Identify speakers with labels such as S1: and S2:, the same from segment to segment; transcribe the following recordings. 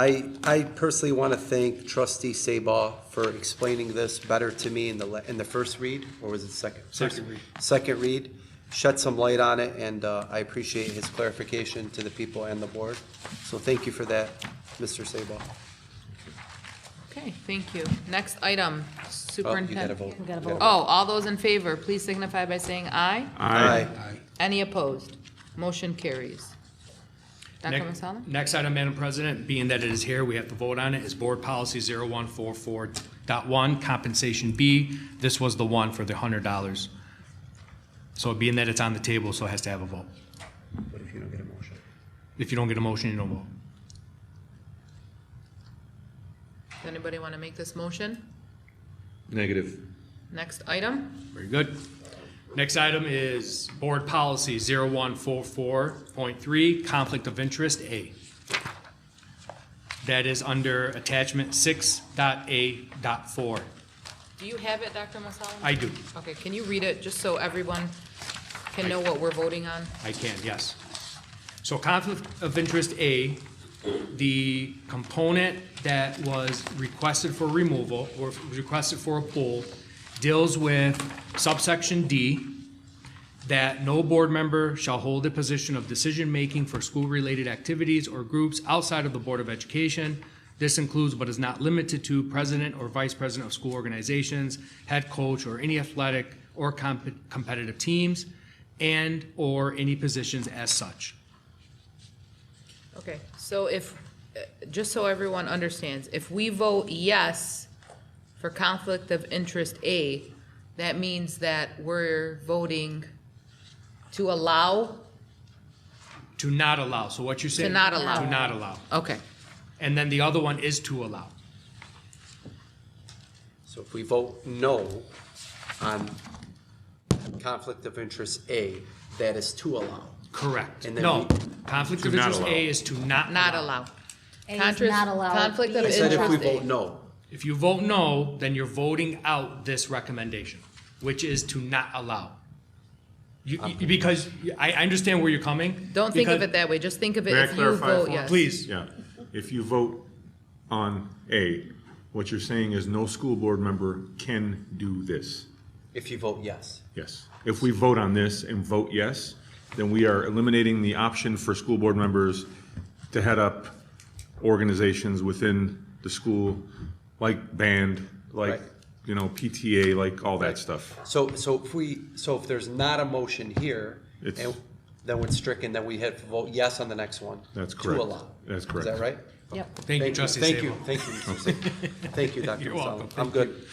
S1: I, I personally want to thank trustee Sabah for explaining this better to me in the, le- in the first read, or was it second?
S2: Second read.
S1: Second read, shed some light on it, and uh, I appreciate his clarification to the people and the board. So thank you for that, Mr. Sabah.
S3: Okay, thank you. Next item,
S1: Oh, you gotta
S3: superintendent.
S1: vote.
S4: We gotta
S1: You
S3: Oh, all those in favor, please signify by saying aye.
S1: Aye.
S3: Any opposed? Motion carries. Dr.
S2: Next-
S3: Masalim?
S2: Next item, Madam President, being that it is here, we have to vote on it, is Board Policy 0144.1, Compensation B. This was the one for the $100. So being that it's on the table, so it has to have a vote.
S1: What if you don't get a motion?
S2: If you don't get a motion, you don't vote.
S3: Does anybody want to make this motion?
S5: Negative.
S3: Next item?
S2: Very good. Next item is Board Policy 0144.3, Conflict of Interest A. That is under Attachment 6.A.4.
S3: Do you have it, Dr. Masalim?
S2: I do.
S3: Okay, can you read it, just so everyone can know what we're voting on?
S2: I can, yes. So conflict of interest A, the component that was requested for removal or requested for a pool deals with subsection D, that no board member shall hold a position of decision-making for school-related activities or groups outside of the Board of Education. This includes but is not limited to president or vice president of school organizations, head coach, or any athletic or comp- competitive teams, and/or any positions as such.
S3: Okay, so if, uh, just so everyone understands, if we vote yes for conflict of interest A, that means that we're voting to allow,
S2: To not allow, so what you're saying?
S3: not allow.
S2: To not allow.
S3: okay,
S2: And then the other one is to allow.
S1: So if we vote no on conflict of interest A, that is to allow.
S2: Correct.
S1: And then
S2: No,
S1: we-
S2: conflict
S5: To
S2: of
S5: not
S2: interest
S5: allow.
S2: A is to not
S3: not
S2: allow.
S3: allow.
S4: A is
S3: Contras-
S4: not allowed.
S3: Conflict of
S4: B
S1: I
S4: is
S1: said if we
S3: interest A.
S1: vote no,
S2: If you vote no, then you're voting out this recommendation, which is to not allow. You, you- because I, I understand where you're coming.
S3: Don't think of
S2: because-
S3: it that way, just think of it
S5: May I
S3: if you
S5: clarify
S3: vote
S5: for-
S3: yes.
S2: Please,
S5: Yeah, if you vote on A, what you're saying is no school board member can do this.
S1: if you vote yes.
S5: Yes. If we vote on this and vote yes, then we are eliminating the option for school board members to head up organizations within the school, like band, like,
S1: Right.
S5: you know, PTA, like all that stuff.
S1: So, so if we, so if there's not a motion here,
S5: It's-
S1: and then it's stricken, then we have to vote yes on the next one.
S5: That's
S1: To
S5: correct.
S1: allow.
S5: That's
S1: Is
S5: correct.
S1: that right?
S4: Yep.
S2: thank you, trustee
S1: Thank you,
S2: Sabo.
S1: thank you, Mr. Sabah. Thank you, Dr.
S2: You're
S1: Masalim.
S2: welcome.
S1: I'm
S2: Thank
S1: good.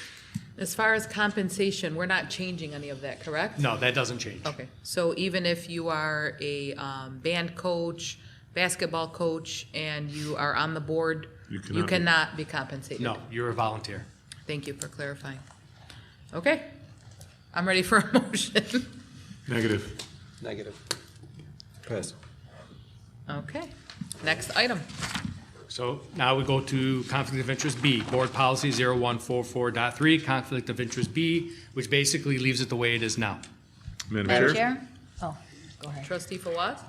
S3: As far as compensation, we're not changing any of that, correct?
S2: No, that doesn't change.
S3: Okay, so even if you are a um, band coach, basketball coach, and you are on the board,
S5: You
S3: you
S5: cannot be-
S3: cannot be compensated?
S2: No, you're a volunteer.
S3: Thank you for clarifying. Okay, I'm ready for a motion.
S5: Negative.
S1: Negative. Pass.
S3: Okay, next item.
S2: So now we go to conflict of interest B, board policy 0144.3, conflict of interest B, which basically leaves it the way it is now.
S4: Madam Chair? Oh, go ahead.
S3: Trustee Fawaz?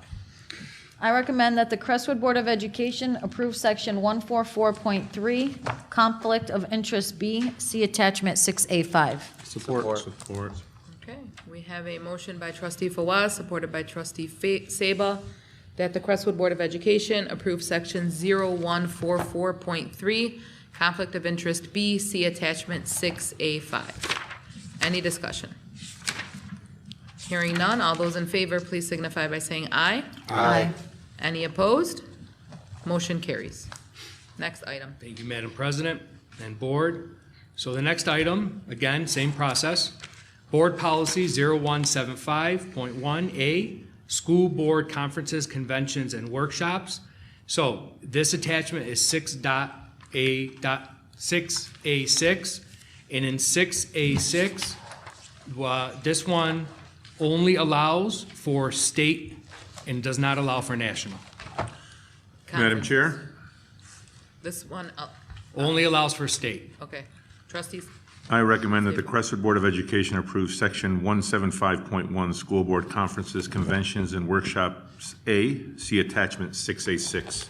S4: I recommend that the Crestwood Board of Education approve Section 144.3, Conflict of Interest B, see Attachment 6A5.
S1: Support.
S5: Support.
S3: Okay, we have a motion by trustee Fawaz, supported by trustee Fa- Saba, that the Crestwood Board of Education approve section 0144.3, conflict of interest B, see attachment 6A5. Any discussion? Hearing none, all those in favor, please signify by saying aye.
S4: Aye.
S3: Any opposed? Motion carries. Next item.
S2: Thank you, Madam President and Board. So the next item, again, same process. Board Policy 0175.1A, School Board Conferences, Conventions, and Workshops. So this attachment is 6.A.6A6. And in 6A6, uh, this one only allows for state and does not allow for national.
S5: Madam
S3: Conference.
S5: Chair,
S3: This one, uh,
S2: Only allows for state.
S3: okay. Trustees,
S5: I recommend that the Crestwood Board of Education approve Section 175.1, School Board Conferences, Conventions, and Workshops A, see Attachment 6A6.